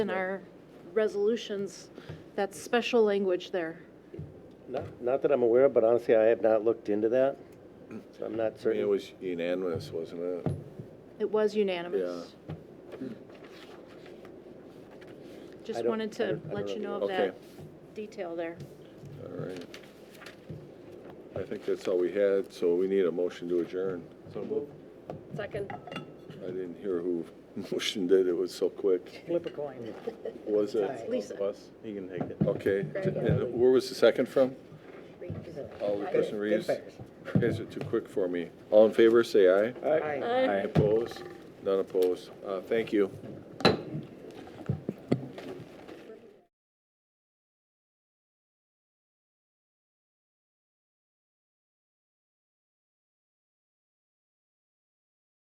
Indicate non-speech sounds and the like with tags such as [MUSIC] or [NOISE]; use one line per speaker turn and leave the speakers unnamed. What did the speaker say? in our resolutions, that special language there.
Not, not that I'm aware of, but honestly, I have not looked into that, so I'm not
I mean, it
certain.
was unanimous, wasn't it?
It was unanimous.
I
Just
don't-
wanted
I
to
don't- I
let you
don't
know
know.
of that
Okay.
detail there.
All right. I think that's all we had, so we need a motion to adjourn. So
Second.
I didn't hear who [LAUGHS] motioned it, it was so quick.
Flip a coin.
Was it?
Lisa.
Us?
You can take it.
Okay, and where was the second from? Oh, Alderperson Reeves? You guys are too quick for me. All in favor, say aye.
Aye.
Opposed? None opposed. Uh, thank you.